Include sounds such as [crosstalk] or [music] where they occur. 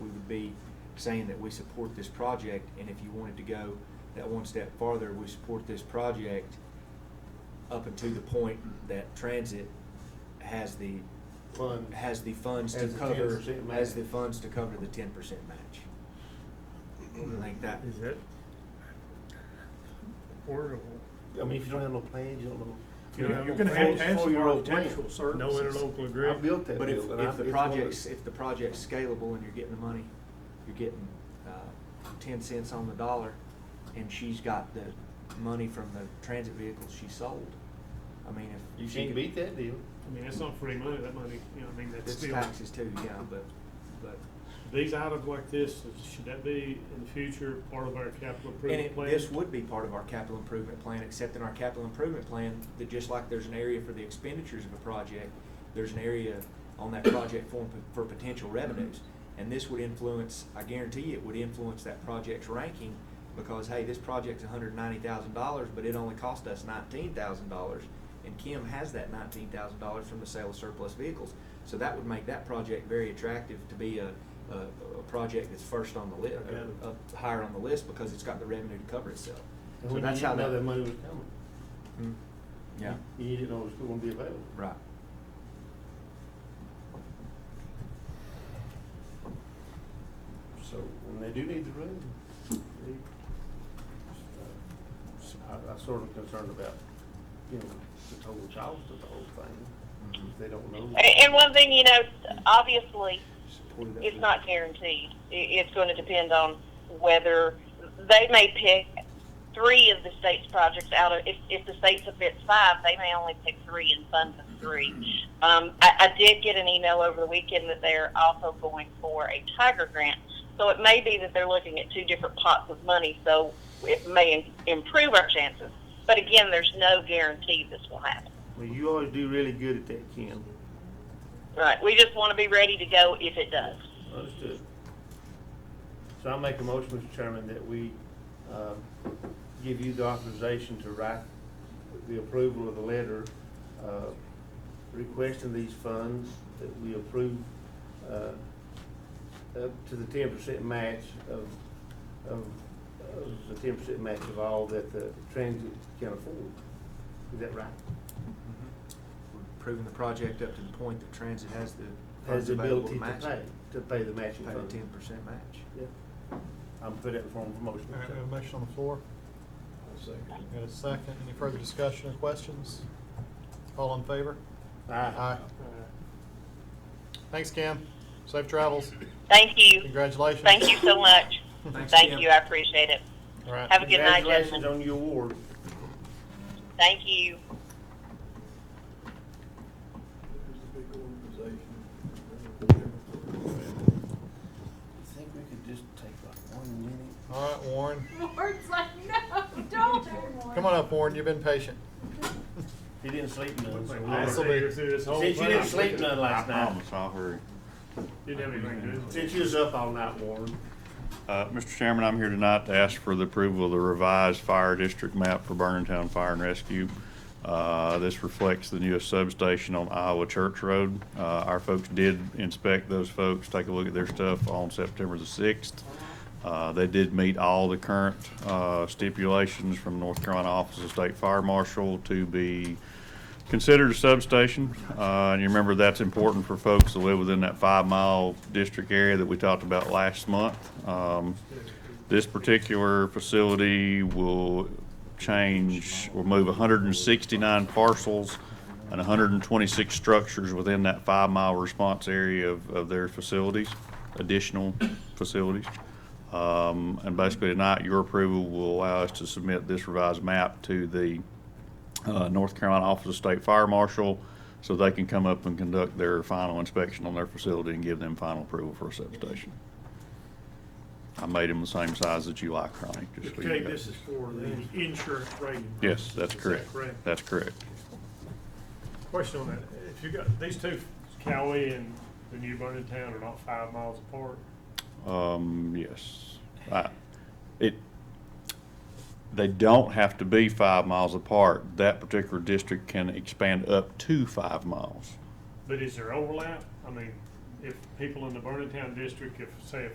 be saying that we support this project, and if you wanted to go that one step farther, we support this project up until the point that transit has the, Funds. has the funds to Has the cover, 10% match. has the funds to cover the ten percent match. I think that, Is that affordable? I mean, if you don't have no plans, you don't know. You know, you're no gonna have plans, to ask for four-year-old architectural plans. services. No interlocal I agreement. built that but if, building. I- if the it's one of project's, if the project's scalable and you're getting the money, you're getting, uh, ten cents on the dollar, and she's got the money from the transit vehicles she sold, I mean, if. You she can't could- beat that deal. I mean, that's not free money, that money, you know, I mean, that's It's still, taxes too, yeah, but, but, these items like this, should that be in the future part of our capital and improvement it, plan? this would be part of our capital improvement plan, except in our capital improvement plan, that just like there's an area for the expenditures of a project, there's an area on that project for, for potential revenues. And this would influence, I guarantee you, it would influence that project's ranking, because hey, this project's hundred and ninety thousand dollars, but it only cost us nineteen thousand dollars. And Kim has that nineteen thousand dollars from the sale of surplus vehicles. So that would make that project very attractive to be a, a, a project that's first on the list, uh, Okay. up higher on the list because it's got the revenue to cover itself. And So when you that's how didn't know that. that money was Hmm. coming. Yeah, You you didn't know it was gonna be available. right. So when they do need the room, they, uh, I, I sort of concerned about, you know, the total cost of the whole thing. Mhm. If they don't know. And and one thing, you know, obviously, Supported that it's with- not guaranteed. I- It's going to depend on whether they may pick three of the state's projects out of, if, if the state submits five, they may only pick three and fund the three. Um, I, I did get an email over the weekend that they're also going for a Tiger grant. So it may be that they're looking at two different pots of money, so it may im- improve our chances. But again, there's no guarantee this will happen. Well, you always do really good at that, Ken. Right, we just want to be ready to go if it does. Understood. So I make a motion, Mr. Chairman, that we um, give you the authorization to write the approval of the letter uh, requesting these funds that we approve uh, up to the ten percent match of, of, of the ten percent match of all that the transit can afford. Is that right? Mm-hmm. We're Proving the project up to the point that transit has the Has funds the available ability to to match. pay, it. to pay the matching Pay the fund. ten percent match. Yeah. I'm put it in form of motion. All right, we have a motion on the floor. Got a second. Any further discussion or questions? All in favor? Aye. Aye. Uh, Thanks, Cam. Safe travels. Thank you. Congratulations. Thank you so much. Thanks, Thank Kim. you, I appreciate it. All right. Have a good night, Congratulations on gentlemen. your award. Thank you. I think we could just take like one minute. All right, Warren. [laughs] Ward's like, no, don't. Come on up, Warren. You've been patient. He didn't sleep none. so we'll- This will be through this whole Since you thing. didn't sleep none last I night, promise, I'll hurry. Didn't have anything to do. since you was up all night, Warren, Uh, Mr. Chairman, I'm here tonight to ask for the approval of the revised fire district map for Burnetown Fire and Rescue. Uh, This reflects the newest substation on Iowa Church Road. Uh, Our folks did inspect those folks, take a look at their stuff on September the 6th. Uh, They did meet all the current uh, stipulations from North Carolina Office of State Fire Marshal to be considered a substation. Uh, and you remember that's important for folks that live within that five mile district area that we talked about last month. Um, this particular facility will change, will move hundred and sixty-nine parcels and hundred and twenty-six structures within that five mile response area of, of their facilities, additional facilities. Um, and basically tonight, your approval will allow us to submit this revised map to the, uh, North Carolina Office of State Fire Marshal so they can come up and conduct their final inspection on their facility and give them final approval for a substation. I made them the same size that you like, Ronnie, just so you Okay, know. this is for the insurance rating. Yes, that's Is that correct. Correct. That's correct. Question on that, if you got, these two, Cowie and the new Vernon Town are not five miles apart, Um, yes. I- It, they don't have to be five miles apart. That particular district can expand up to five miles. but is there overlap? I mean, if people in the Vernon Town district, if, say, if